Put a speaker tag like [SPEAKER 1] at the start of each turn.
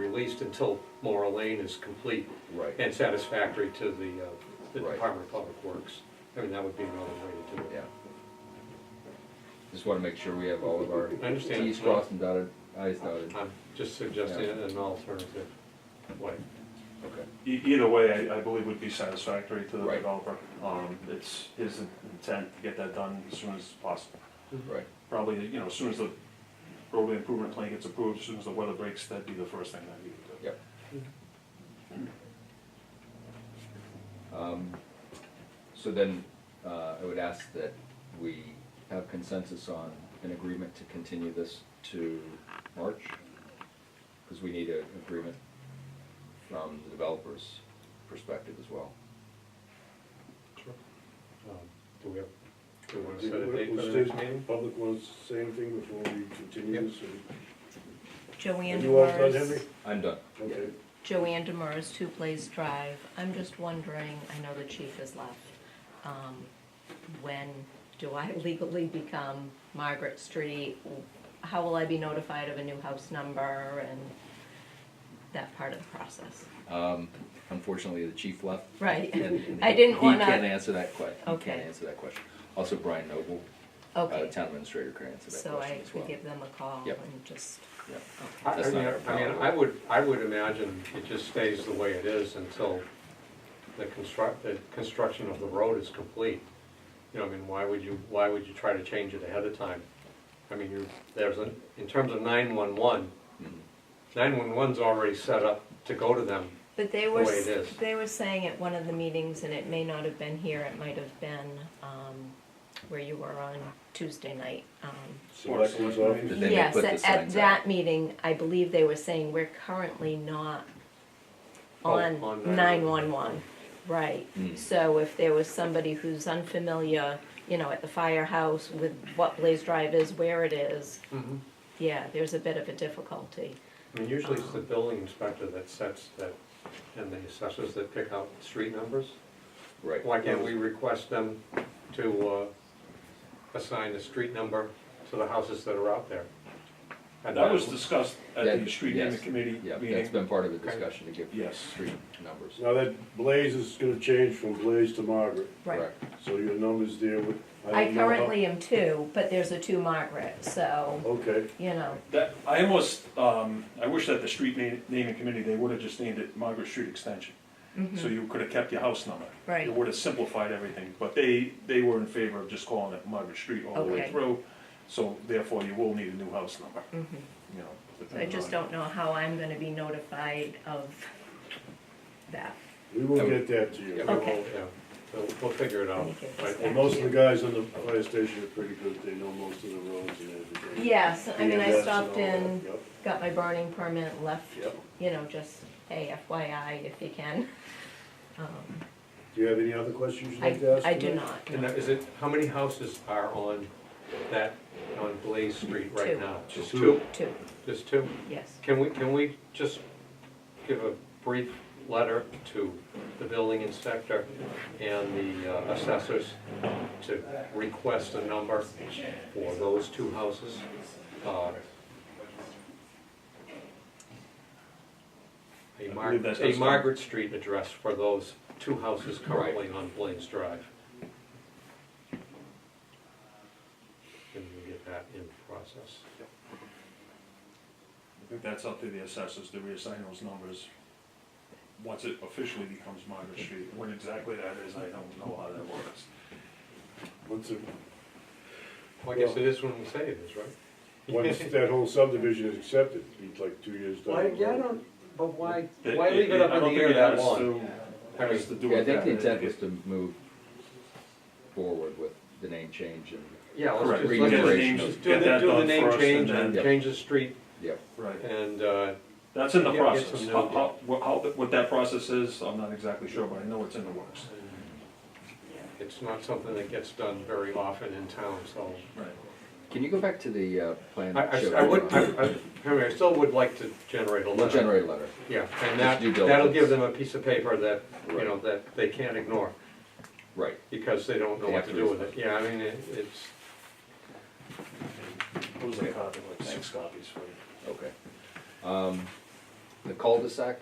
[SPEAKER 1] at least until Mora Lane is complete
[SPEAKER 2] Right,
[SPEAKER 1] and satisfactory to the, uh, the
[SPEAKER 2] Right.
[SPEAKER 1] Department of Public Works. I mean, that would be another way to do it.
[SPEAKER 2] yeah. Just wanna make sure we have all of our
[SPEAKER 1] I understand.
[SPEAKER 2] Ts crossed and dotted, Is dotted.
[SPEAKER 1] I'm just suggesting
[SPEAKER 2] Yeah.
[SPEAKER 1] an alternative way.
[SPEAKER 2] Okay,
[SPEAKER 3] E- Either way, I, I believe would be satisfactory to the
[SPEAKER 2] Right.
[SPEAKER 3] developer. Um, it's his intent to get that done as soon as possible.
[SPEAKER 2] right,
[SPEAKER 3] Probably, you know, as soon as the roadway improvement plan gets approved, as soon as the weather breaks, that'd be the first thing that he would do.
[SPEAKER 2] yep. Um, So then, uh, I would ask that we have consensus on an agreement to continue this to March? Because we need an agreement from the developer's perspective as well.
[SPEAKER 1] Um, Do we have, do we want to set a date for
[SPEAKER 4] Was
[SPEAKER 1] the
[SPEAKER 4] State
[SPEAKER 1] next meeting?
[SPEAKER 4] Public wants the same thing before we continue this? and-
[SPEAKER 5] Joanne
[SPEAKER 4] Are you all done, Henry?
[SPEAKER 5] Demers,
[SPEAKER 2] I'm done.
[SPEAKER 4] Okay.
[SPEAKER 5] Joanne Demers, Two Place Drive. I'm just wondering, I know the chief has left, um, when do I legally become Margaret Street? How will I be notified of a new house number and that part of the process?
[SPEAKER 2] Um, Unfortunately, the chief left.
[SPEAKER 5] Right.
[SPEAKER 2] and
[SPEAKER 5] I didn't wanna-
[SPEAKER 2] He can't answer that que, he
[SPEAKER 5] Okay.
[SPEAKER 2] can't answer that question. Also, Brian Noble, uh,
[SPEAKER 5] Okay,
[SPEAKER 2] town administrator, can answer that
[SPEAKER 5] so I
[SPEAKER 2] question as
[SPEAKER 5] could
[SPEAKER 2] well.
[SPEAKER 5] give them a call
[SPEAKER 2] Yep.
[SPEAKER 5] and just,
[SPEAKER 2] Yeah.
[SPEAKER 1] I I
[SPEAKER 2] That's
[SPEAKER 1] mean,
[SPEAKER 2] not our
[SPEAKER 1] I mean,
[SPEAKER 2] problem.
[SPEAKER 1] I would, I would imagine it just stays the way it is until the construct, the construction of the road is complete. You know, I mean, why would you, why would you try to change it ahead of time? I mean, you, there's a, in terms of nine-one-one,
[SPEAKER 2] Mhm.
[SPEAKER 4] Mm-hmm.
[SPEAKER 1] nine-one-one's already set up to go to them.
[SPEAKER 5] but they were,
[SPEAKER 1] way it
[SPEAKER 5] s-
[SPEAKER 1] is.
[SPEAKER 5] they were saying at one of the meetings, and it may not have been here, it might have been, um, where you were on Tuesday night, um,
[SPEAKER 4] Selectmen's office?
[SPEAKER 2] Did they
[SPEAKER 5] Yes,
[SPEAKER 2] put the
[SPEAKER 5] at, at
[SPEAKER 2] signs
[SPEAKER 5] that
[SPEAKER 2] up?
[SPEAKER 5] meeting, I believe they were saying we're currently not
[SPEAKER 1] Oh,
[SPEAKER 5] on
[SPEAKER 1] on
[SPEAKER 5] nine-one-one. Right,
[SPEAKER 2] Mm.
[SPEAKER 5] so if there was somebody who's unfamiliar, you know, at the firehouse with what Blaze Drive is, where it is,
[SPEAKER 1] Mhm.
[SPEAKER 5] yeah, there's a bit of a difficulty.
[SPEAKER 1] I mean, usually it's the building inspector that sets that, and the assessors that pick out street numbers.
[SPEAKER 2] Right.
[SPEAKER 1] Why can't we request them to uh, assign a street number to the houses that are out there? And
[SPEAKER 3] That was discussed at
[SPEAKER 2] That-
[SPEAKER 3] the street
[SPEAKER 2] yes.
[SPEAKER 3] naming committee
[SPEAKER 2] Yeah, that's
[SPEAKER 3] meeting.
[SPEAKER 2] been part of the discussion to give
[SPEAKER 3] Yes.
[SPEAKER 2] street numbers.
[SPEAKER 4] Now that Blaze is gonna change from Blaze to Margaret,
[SPEAKER 2] Correct.
[SPEAKER 4] so your number's there with.
[SPEAKER 5] I
[SPEAKER 4] don't know how-
[SPEAKER 5] currently am two, but there's a two Margaret, so,
[SPEAKER 4] Okay,
[SPEAKER 5] you know,
[SPEAKER 3] That, I almost, um, I wish that the street na- naming committee, they would've just named it Margaret Street Extension. So you could've kept your house number.
[SPEAKER 5] Mm-hmm. Right.
[SPEAKER 3] It would've simplified everything, but they, they were in favor of just calling it Margaret Street all the way
[SPEAKER 5] Okay.
[SPEAKER 3] through. So therefore, you will need a new house number,
[SPEAKER 5] mm-hmm.
[SPEAKER 3] you know.
[SPEAKER 5] I
[SPEAKER 3] depending
[SPEAKER 5] just
[SPEAKER 3] on-
[SPEAKER 5] don't know how I'm gonna be notified of that.
[SPEAKER 4] we will get that to you.
[SPEAKER 1] Yeah, we will,
[SPEAKER 5] Okay.
[SPEAKER 1] yeah, we'll, we'll figure it out.
[SPEAKER 5] Thank you.
[SPEAKER 1] Right,
[SPEAKER 4] And most of the guys on the fire station are pretty good, they know most of the roads and everything.
[SPEAKER 5] Yes, I mean,
[SPEAKER 4] BMS
[SPEAKER 5] I
[SPEAKER 4] and
[SPEAKER 5] stopped
[SPEAKER 4] all that,
[SPEAKER 5] in.
[SPEAKER 4] yep.
[SPEAKER 5] got my burning permit, left,
[SPEAKER 4] Yep.
[SPEAKER 5] you know, just, hey, FYI, if you can. Um,
[SPEAKER 4] Do you have any other questions you'd
[SPEAKER 5] I,
[SPEAKER 4] like to ask?
[SPEAKER 5] I do
[SPEAKER 4] tonight?
[SPEAKER 5] not,
[SPEAKER 1] And now, is it, how many houses are on that, on Blaze Street right
[SPEAKER 5] Two.
[SPEAKER 1] now? Just
[SPEAKER 4] Two.
[SPEAKER 1] two?
[SPEAKER 5] two,
[SPEAKER 1] Just two?
[SPEAKER 5] yes.
[SPEAKER 1] Can we, can we just give a brief letter to the building inspector and the uh, assessors to request a number for those two houses? Uh, A
[SPEAKER 3] believe
[SPEAKER 1] Margaret,
[SPEAKER 3] that's
[SPEAKER 1] a
[SPEAKER 3] what's-
[SPEAKER 1] Margaret Street address for those two houses currently on Blaine's Drive. And we get that in process.
[SPEAKER 3] I think that's up to the assessors to reassign those numbers. Once it officially becomes Margaret Street, when exactly that is, I don't know how that works.
[SPEAKER 4] Once, the-
[SPEAKER 1] Well, I guess it is when we say it is, right?
[SPEAKER 4] once that whole subdivision is accepted, it's like two years down the
[SPEAKER 1] Why,
[SPEAKER 4] road.
[SPEAKER 1] yeah, I don't, but why, why leave it up in the air that long?
[SPEAKER 3] I don't think it has to- has to do
[SPEAKER 2] Yeah, I
[SPEAKER 3] with that.
[SPEAKER 2] think the intent was to move forward with the name change and,
[SPEAKER 1] Yeah, let's
[SPEAKER 3] Correct,
[SPEAKER 1] just,
[SPEAKER 3] we
[SPEAKER 2] let's
[SPEAKER 3] get the
[SPEAKER 2] just
[SPEAKER 3] names,
[SPEAKER 1] let's do
[SPEAKER 3] get
[SPEAKER 1] the,
[SPEAKER 3] that
[SPEAKER 1] do the
[SPEAKER 3] done
[SPEAKER 1] name
[SPEAKER 3] first and
[SPEAKER 1] change and
[SPEAKER 3] then,
[SPEAKER 1] change the street
[SPEAKER 2] yep.
[SPEAKER 3] right,
[SPEAKER 1] and, uh,
[SPEAKER 3] that's in the
[SPEAKER 1] Yeah, get
[SPEAKER 3] process.
[SPEAKER 1] some
[SPEAKER 3] How,
[SPEAKER 1] new-
[SPEAKER 3] how, what- how, what that process is, I'm not exactly sure, but I know it's in the works.
[SPEAKER 1] it's not something that gets done very often in town, so.
[SPEAKER 3] Right.
[SPEAKER 2] Can you go back to the uh, plan?
[SPEAKER 1] I,
[SPEAKER 2] that showed
[SPEAKER 1] I, I would,
[SPEAKER 2] you?
[SPEAKER 1] I, I, Henry, I still would like to generate a
[SPEAKER 2] We'll
[SPEAKER 1] letter.
[SPEAKER 2] generate a letter.
[SPEAKER 1] Yeah, and that,
[SPEAKER 2] due
[SPEAKER 1] that'll
[SPEAKER 2] diligence.
[SPEAKER 1] give them a piece of paper that, you
[SPEAKER 2] Right.
[SPEAKER 1] know, that they can't ignore,
[SPEAKER 2] Right.
[SPEAKER 1] because they don't know
[SPEAKER 2] They
[SPEAKER 1] what
[SPEAKER 2] have
[SPEAKER 1] to
[SPEAKER 2] to
[SPEAKER 1] do with it.
[SPEAKER 2] respond.
[SPEAKER 1] Yeah, I mean, it, it's,
[SPEAKER 3] What was the copy, like six copies for you?
[SPEAKER 2] Okay. Um, the cul-de-sac